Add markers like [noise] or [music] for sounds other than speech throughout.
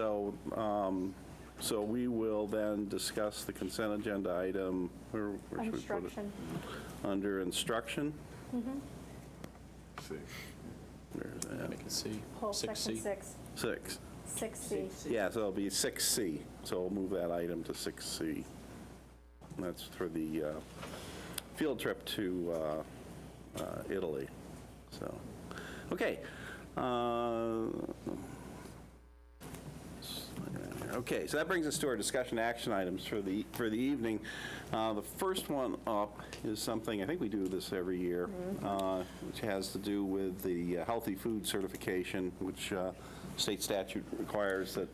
So, um, so we will then discuss the consent agenda item, where where should we put it? Instruction. Under instruction? See. Where is that? Make it C. Whole Six section C. six, Six. six C. Yeah, so it'll be 6C. So we'll move that item to 6C. And that's for the uh, field trip to uh, uh, Italy. So, okay. Uh, Okay, so that brings us to our discussion action items for the, for the evening. Uh, The first one up is something, I think we do this every year, uh, which has to do with the uh, healthy food certification, which uh, state statute requires that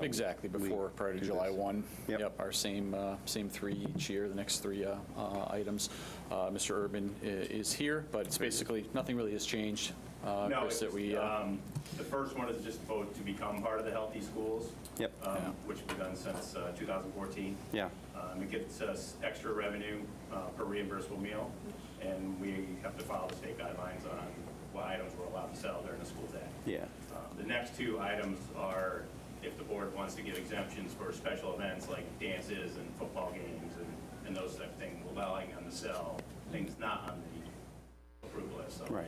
Exactly, before, prior to do July this. 1. Yep. Our same, uh, same three each year, the next three uh, uh, items. Uh, Mr. Urban i- is here, but it's basically, nothing really has changed. uh, No, Chris, that it's, we, uh, um, the first one is just vote to become part of the Healthy Schools. Yep. um, Yeah. Which we've done since uh, 2014. Yeah. Um, It gets us extra revenue uh, per reimbursable meal, and we have to follow the state guidelines on what items we're allowed to sell during the school day. Yeah, Uh, The next two items are if the board wants to give exemptions for special events like dances and football games and- and those type of things, allowing them to sell things not on the approval list. So right,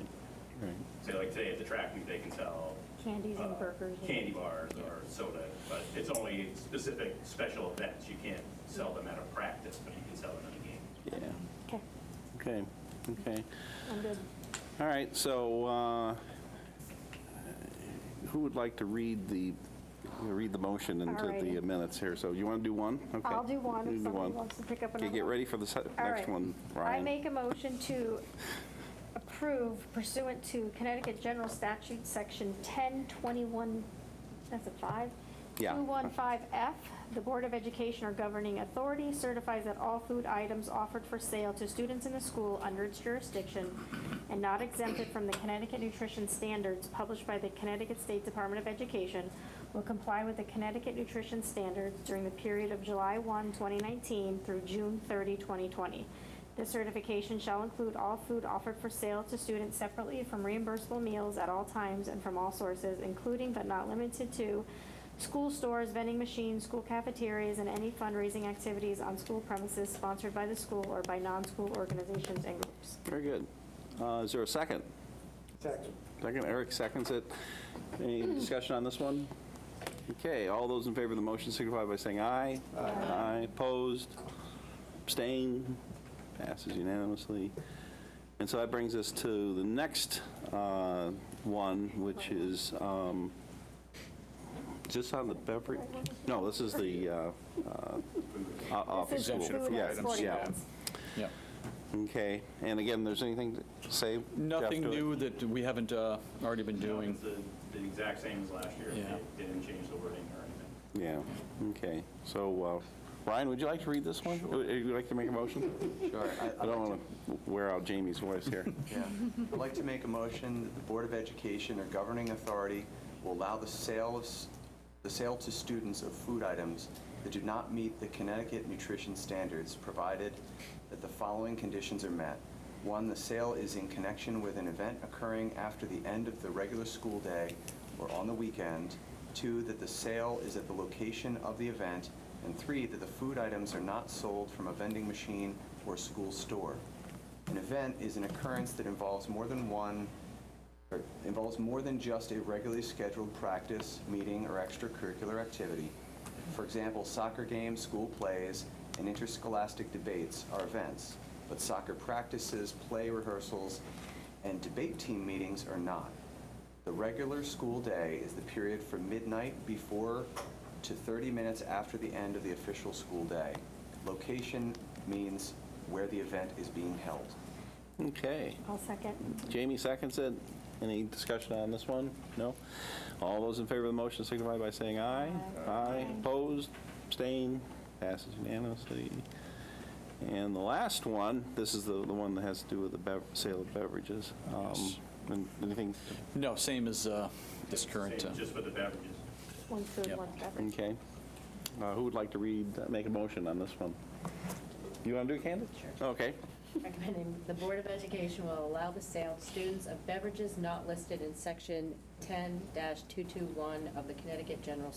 right. so like today at the track meet, they can sell. Candies and uh, burgers. Candy bars or soda, but it's only specific special events. You can't sell them at a practice, but you can sell them at a game. Yeah, Okay, okay, okay. I'm good. All right, so uh, who would like to read the, read the motion into the Alrighty. minutes here? So you want to do one? Okay. I'll do one You if do someone one. wants to pick up another Okay, one. get ready for the se- All next right. one, I Ryan. make a motion to approve pursuant to Connecticut General Statute, Section 1021, that's a five? Yeah. 215F, the Board of Education or governing authority certifies that all food items offered for sale to students in the school under its jurisdiction and not exempted from the Connecticut Nutrition Standards published by the Connecticut State Department of Education will comply with the Connecticut Nutrition Standards during the period of July 1, 2019 through June 30, 2020. This certification shall include all food offered for sale to students separately from reimbursable meals at all times and from all sources, including but not limited to school stores, vending machines, school cafeterias, and any fundraising activities on school premises sponsored by the school or by non-school organizations and groups. Very good. Uh, Is there a second? Second. Second, Eric seconds it. Any discussion on this one? Okay, all those in favor of the motion signify by saying aye. Aye. Opposed? Abstain? Passes unanimously. And so that brings us to the next uh, one, which is, um, is this on the beverage? No, this is the uh, uh, o- office This is school. exemption food for and Yeah, sporting yeah. goods. yeah. Okay, and again, there's anything to say? Jeff, Nothing to it? new that we haven't uh, already been doing. It's the the exact same as last year. Yeah. They didn't change the wording or anything. Yeah, okay. So, uh, Ryan, would you like to read this one? Would would you like to make a motion? Sure. I- I'd I don't like want to wear out Jamie's voice [laughs] here. to- yeah. I'd like to make a motion that the Board of Education or governing authority will allow the sale of, s- the sale to students of food items that do not meet the Connecticut nutrition standards, provided that the following conditions are met. One, the sale is in connection with an event occurring after the end of the regular school day or on the weekend. Two, that the sale is at the location of the event. And three, that the food items are not sold from a vending machine or school store. An event is an occurrence that involves more than one, or involves more than just a regularly scheduled practice, meeting, or extracurricular activity. For example, soccer games, school plays, and interscholastic debates are events, but soccer practices, play rehearsals, and debate team meetings are not. The regular school day is the period from midnight before to 30 minutes after the end of the official school day. Location means where the event is being held. Okay. I'll second. Jamie seconds it. Any discussion on this one? No? All those in favor of the motion signify by saying aye. Aye. Opposed, abstained, passes unanimously. And the last one, this is the the one that has to do with the bev- sale of beverages. Um, Yes. and Anything No, same as uh, this current. Same uh, Just with the beverages. One food, Yep. one beverage. Okay. Uh, Who would like to read, make a motion on this one? You want to do it, Candace? Sure. Okay. Recommending the Board of Education will allow the sale to students of beverages not listed in Section 10-221 of the Connecticut General